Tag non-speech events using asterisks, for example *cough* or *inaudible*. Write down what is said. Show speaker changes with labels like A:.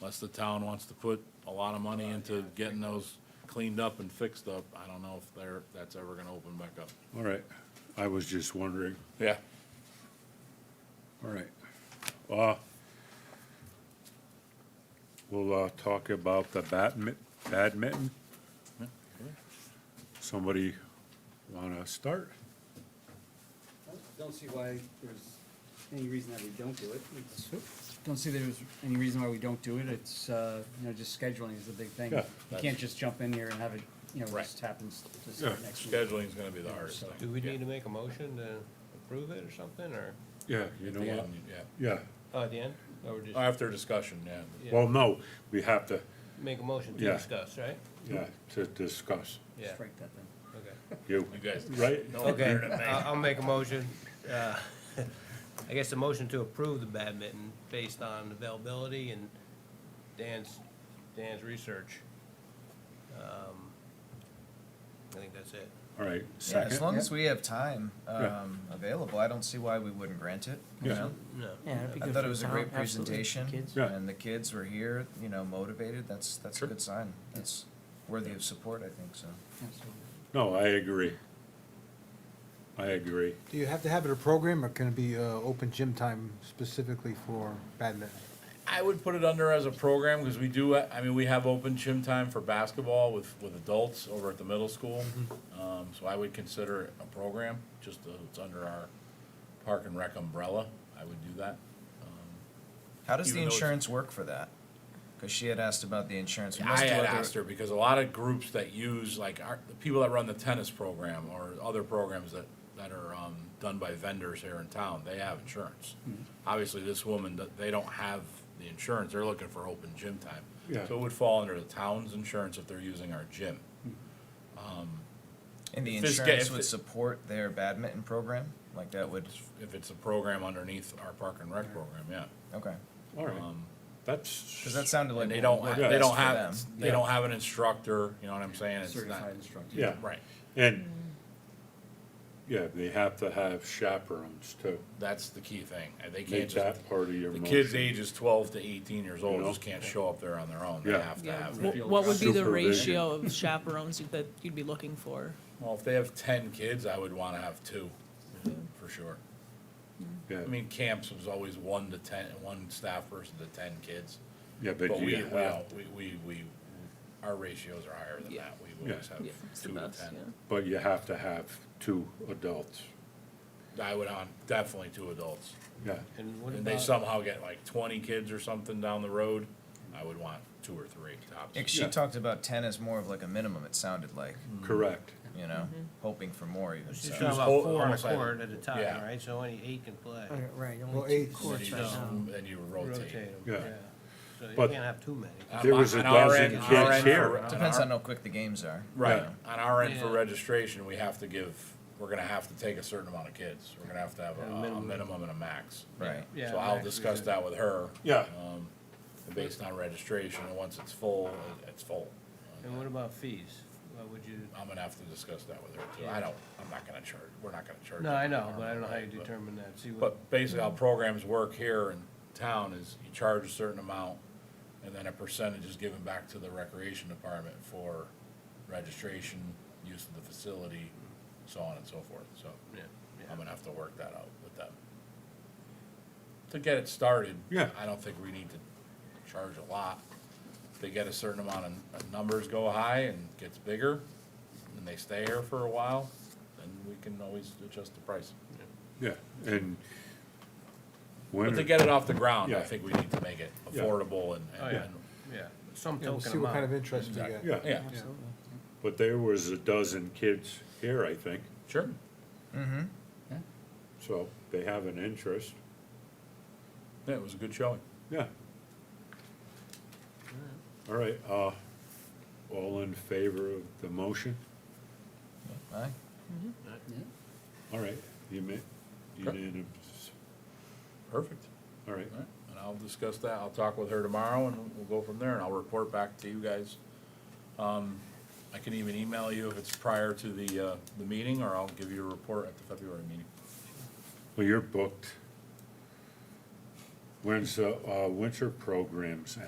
A: Unless the town wants to put a lot of money into getting those cleaned up and fixed up, I don't know if they're, that's ever gonna open back up.
B: All right, I was just wondering,
A: Yeah.
B: all right. Uh, We'll uh, talk about the badmi- badminton. Somebody want to start?
C: Don't see why there's any reason that we don't do it. It's- Don't see there's any reason why we don't do it. It's, uh, you know, just scheduling is the big thing.
B: Yeah,
C: You can't just jump in here and have it, you know,
A: Right.
C: just happens to
B: Yeah,
C: start next week.
A: Scheduling's gonna be the hardest thing.
D: Do we need to make a motion to approve it or something, or,
B: Yeah, you know
A: Yeah,
B: what?
A: yeah.
B: Yeah,
D: oh, at the end? Or we just
A: After discussion, yeah.
D: Yeah.
B: well, no, we have to,
D: make a motion to
B: Yeah.
D: discuss, right?
B: yeah, to discuss.
D: Yeah,
C: Strike that then.
D: okay.
B: You,
A: You guys.
B: right?
A: No,
D: Okay,
A: better than me.
D: I- I'll make a motion, uh, *laughs* I guess a motion to approve the badminton based on availability and Dan's, Dan's research. Um, I think that's it.
B: All right,
E: Yeah, as
B: second,
E: long as we have time
B: Yeah.
E: um, available, I don't see why we wouldn't grant it. you
B: Yeah.
E: know?
D: No.
F: Yeah, that'd be
E: I
F: good
E: thought
F: for
E: it was a
F: town,
E: great
F: absolutely,
E: presentation,
F: kids.
B: Yeah.
E: and the kids were here, you know, motivated. That's that's
B: Sure.
E: a good sign. That's worthy of support, I think. So
C: Absolutely.
B: no, I agree. I agree.
G: Do you have to have it a program, or can it be uh, open gym time specifically for badminton?
A: I would put it under as a program, because we do, I mean, we have open gym time for basketball with, with adults over at the middle school.
D: Mm-hmm.
A: Um, so I would consider it a program, just, uh, it's under our park and rec umbrella, I would do that.
E: how does
A: Even
E: the
A: though it's-
E: insurance work for that? Because she had asked about the insurance. We must
A: I
E: do
A: had
E: other-
A: asked her, because a lot of groups that use, like, our, the people that run the tennis program, or other programs that, that are, um, done by vendors here in town, they have insurance. Obviously, this woman, th- they don't have the insurance, they're looking for open gym time.
B: Yeah.
A: So it would fall under the town's insurance if they're using our gym.
E: and the
A: if this ga-
E: insurance
A: if
E: would
A: it-
E: support their badminton program. Like that would.
A: If it's a program underneath our park and rec program, yeah.
E: Okay,
B: All right,
E: Um, because
B: that's,
E: that sounded like
A: And they
E: what
A: don't,
E: would
A: ha-
E: work
A: they
E: best
A: don't
E: for
A: have,
E: them.
A: they don't have an instructor, you know what I'm saying? It's not-
C: Certified instructor.
B: yeah.
A: Right,
B: And, yeah, they have to have chaperones too.
A: that's the key thing. Uh, They can't
B: Make
A: just,
B: that part of your
A: the
B: motion.
A: kids ages twelve to eighteen years
B: You
A: old
B: know?
A: just can't show up there on their own. They
B: Yeah.
A: have to
H: Yeah,
A: have,
H: wh- what would be the
B: Supervision.
H: ratio of chaperones that you'd be looking for?
A: well, if they have ten kids, I would wanna have two,
H: Mm-hmm.
A: for sure.
B: Yeah,
A: I mean, camps was always one to ten, one staff person to ten kids.
B: yeah, but
A: But
B: you
A: we,
B: have.
A: we, we, we, our ratios are higher than
H: Yeah.
A: that. We always have
H: Yeah, it's the
A: two to
H: best,
A: ten.
H: yeah.
B: But you have to have two adults,
A: I would on, definitely two adults.
B: yeah.
D: And what
A: And they
D: about,
A: somehow get like twenty kids or something down the road, I would want two or three tops.
E: Like, she
B: Yeah.
E: talked about ten as more of like a minimum. It sounded like
A: Mm.
B: Correct.
E: you know,
F: Mm-hmm.
E: hoping for more even.
D: she's
E: so.
D: talking about
A: whole-
D: four on a
A: almost like-
D: court at a time,
A: yeah.
D: right? So only eight can play.
F: Uh, Right,
G: Well,
F: only two
A: And then
G: eight,
F: courts
A: you
F: right
A: just-
F: now.
A: Then you
D: Rotate
A: rotate.
D: 'em,
B: Yeah.
D: yeah. So you
B: But-
D: can't have too many.
A: Uh, On
B: There
A: my-
B: was a
A: on our
B: dozen
A: end- on our
B: kids
A: end
B: here.
A: for- on
E: Depends
A: our-
E: on how quick the games are.
A: Right,
B: Yeah.
A: on our end for
D: Yeah.
A: registration, we have to give, we're gonna have to take a certain amount of kids. We're gonna have to have
D: Yeah,
A: a- a
D: minimum.
A: minimum and a max.
E: Right.
D: Yeah,
A: So I'll
D: max,
A: discuss
D: yeah.
A: that with her.
B: Yeah.
A: um, Based on registration, and once it's full, it- it's full.
D: And what about fees? What would you,
A: I'm gonna have to discuss that with her too. I don't, I'm not gonna charge, we're not gonna charge.
D: no, I know, but I don't know how you
A: But-
D: determine that, see what,
A: But basically how programs work here in town is you charge a certain amount and then a percentage is given back to the recreation department for registration, use of the facility, so on and so forth, so.
D: yeah,
A: I'm
D: yeah.
A: gonna have to work that out with them. To get it started.
B: Yeah.
A: I don't think we need to charge a lot. If They get a certain amount of, of numbers go high and gets bigger, and they stay here for a while, then we can always adjust the price.
B: Yeah, and
A: But to
B: when,
A: get it off the ground, I
B: Yeah.
A: think we need to make it
B: Yeah.
A: affordable and,
D: Oh,
A: and,
D: yeah, yeah, some
G: You know,
D: token
G: see what kind of
D: amount.
G: interest you get.
B: yeah,
A: yeah,
C: Absolutely.
B: but there was a dozen kids here, I think,
A: sure.
B: so they have an interest,
A: Yeah, it was a good showing.
B: yeah. All right, uh, all in favor of the motion?
E: Aye.
B: All right, you ma- unanimous,
A: Perfect.
B: all right,
A: All right, And I'll discuss that. I'll talk with her tomorrow and we'll go from there and I'll report back to you guys. Um, I can even email you if it's prior to the, uh, the meeting or I'll give you a report at the February meeting.
B: well, you're booked. When's, the, uh, winter programs